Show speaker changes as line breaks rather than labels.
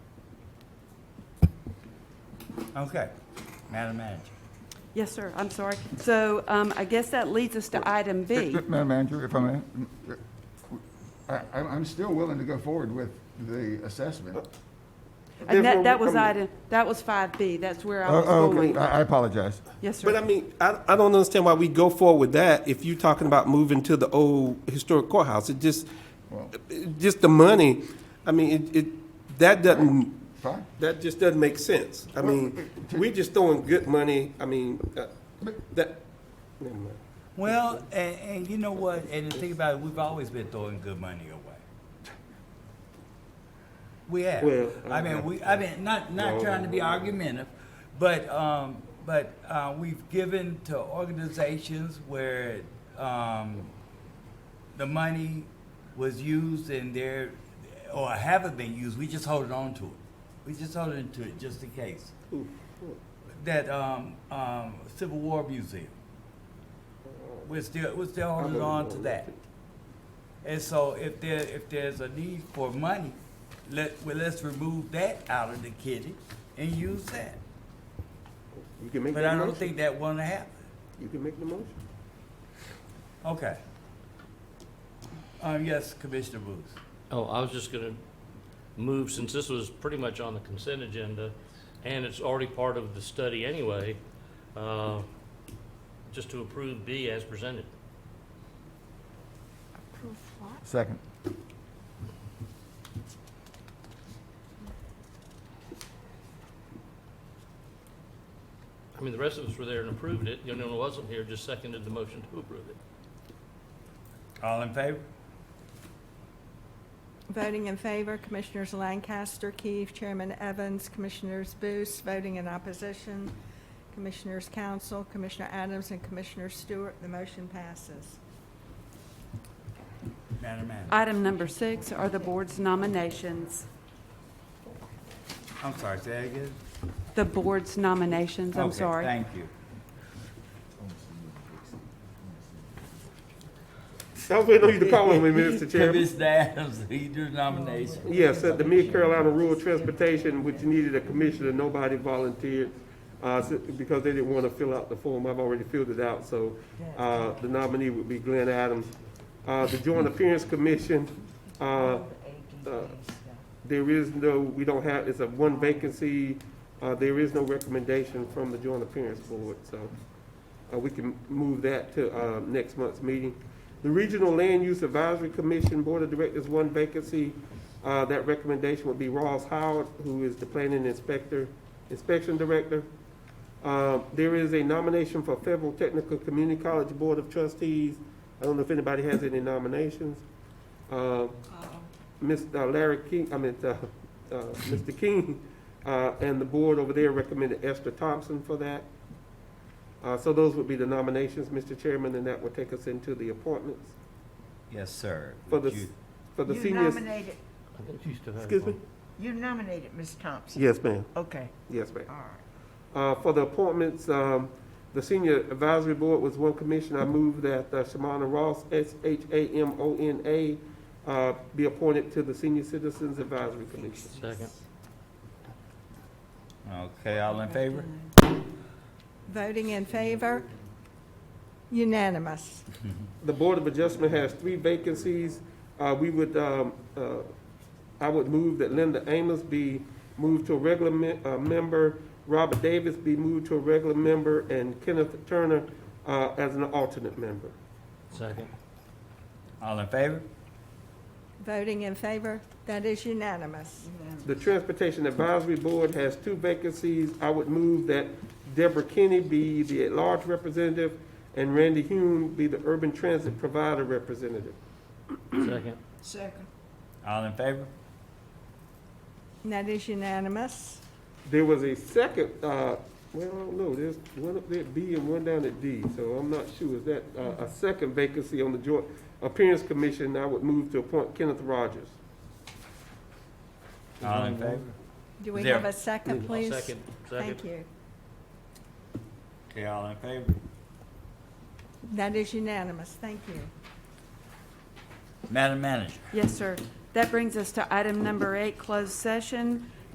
Okay, Madam Manager.
Yes, sir, I'm sorry. So um, I guess that leads us to item B.
Madam Manager, if I may, I, I'm I'm still willing to go forward with the assessment.
And
Therefore,
that,
we
that was
come to-
item, that was 5B, that's where I
Oh,
was
oh, okay.
going.
I I apologize.
Yes,
But I
sir.
mean, I, I don't understand why we go forward with that if you're talking about moving to the old historic courthouse. It just, it- just the money, I mean, it, it, that doesn't,
Fine.
that just doesn't make sense. I mean, we just throwing good money, I mean, uh, that, never mind.
Well, and, and you know what, and the thing about it, we've always been throwing good money away. We have.
Well,
I mean, we, I mean, not, not trying to be argumentative, but, um, but, uh, we've given to organizations where, um, the money was used and there, or haven't been used, we just holding on to it. We just holding to it just in case. That, um, um, Civil War Museum. We're still, we're still holding on to that. And so if there, if there's a need for money, let, well, let's remove that out of the kitty and use that.
you can make
But I
that
don't
motion.
think that wanna happen.
You can make the motion.
Okay. Um, yes, Commissioner Booth.
Oh, I was just gonna move, since this was pretty much on the consent agenda, and it's already part of the study anyway, uh, just to approve B as presented.
Second.
I mean, the rest of us were there and approved it, the only one who wasn't here just seconded the motion to approve it.
All in favor?
Voting in favor, Commissioners Lancaster, Keefe, Chairman Evans, Commissioners Booth. Voting in opposition, Commissioners Council, Commissioner Adams, and Commissioner Stewart. The motion passes.
Madam Manager.
Item number six are the board's nominations.
I'm sorry, say that again?
The board's nominations, I'm
Okay,
sorry.
Thank you.
I was waiting on you to call on me, Mr. Chairman.
Commissioner Adams, lead your nomination.
Yes, at the Mid-Carolina Rural Transportation, which needed a commissioner, nobody volunteered, uh, s- because they didn't want to fill out the form, I've already filled it out, so, uh, the nominee would be Glenn Adams. Uh, the Joint Appearance Commission, uh, uh, there is no, we don't have, it's a one vacancy, uh, there is no recommendation from the Joint Appearance Board, so, uh, we can move that to, uh, next month's meeting. The Regional Land Use Advisory Commission Board of Directors, one vacancy, uh, that recommendation would be Ross Howard, who is the planning inspector, inspection director. Uh, there is a nomination for Federal Technical Community College Board of Trustees. I don't know if anybody has any nominations. Uh, Mr. Larry King, I mean, uh, uh, Mr. King, uh, and the board over there recommended Esther Thompson for that. Uh, so those would be the nominations, Mr. Chairman, and that would take us into the appointments
Yes, sir.
for the,
Would you-
for the
You
seniors.
nominated,
I think you still have
Excuse me?
you nominated Ms. Thompson.
Yes, ma'am.
Okay,
Yes, ma'am.
all right.
Uh, For the appointments, um, the Senior Advisory Board was one commission. I move that uh, Shamona Ross, S-H-A-M-O-N-A, uh, be appointed to the Senior Citizens Advisory Commission.
Second.
Okay, all in favor?
Voting in favor, unanimous.
The Board of Adjustment has three vacancies. Uh, We would, um, uh, I would move that Linda Amos be moved to a regular me- uh, member, Robert Davis be moved to a regular member, and Kenneth Turner uh, as an alternate member.
Second.
All in favor?
Voting in favor, that is unanimous.
The Transportation Advisory Board has two vacancies. I would move that Deborah Kenny be the at-large representative and Randy Hume be the urban transit provider representative.
Second.
Second.
All in favor?
Mm-hmm.
That is unanimous.
There was a second, uh, well, I don't know, there's one up there at B and one down at D, so I'm not sure. Is that uh, a second vacancy on the Joint Appearance Commission? I would move to appoint Kenneth Rogers.
All in favor?
Do we
There.
have a second,
I'll
please?
Second,
Thank
second.
you.
Okay, all in favor?
That is unanimous, thank you.
Madam Manager.
Yes, sir. That brings us to item number eight, closed session.